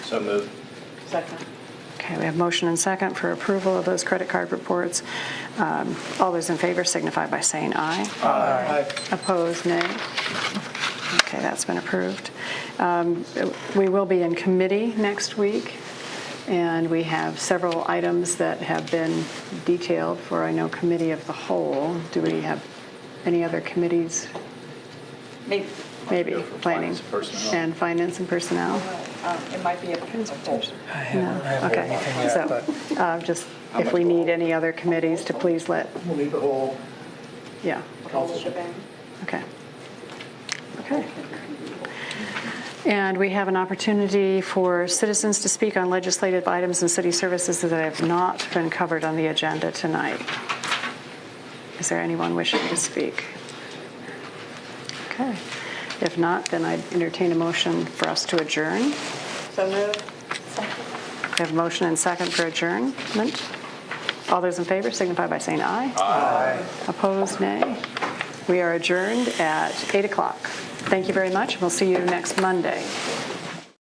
So moved. Second. Okay, we have motion and second for approval of those credit card reports. Um, All those in favor signify by saying aye. Aye. Opposed, nay. Okay, that's been approved. Um, We will be in committee next week, and we have several items that have been detailed for, I know, committee of the whole. Do we have any other committees? Maybe, Maybe, Go for planning. finance and personnel. And finance and personnel? um, it might be a poll. I haven't heard Okay, anything yet, but so, uh, just, How if much we need will- any other committees to please let, We'll need the whole yeah, All shebang. okay. Okay. And we have an opportunity for citizens to speak on legislative items and city services that have not been covered on the agenda tonight. Is there anyone wishing to speak? Okay. If not, then I'd entertain a motion for us to adjourn. So moved. Second. We have a motion and second for adjournment. All those in favor signify by saying aye. Aye. Opposed, nay. We are adjourned at 8 o'clock. Thank you very much, and we'll see you next Monday.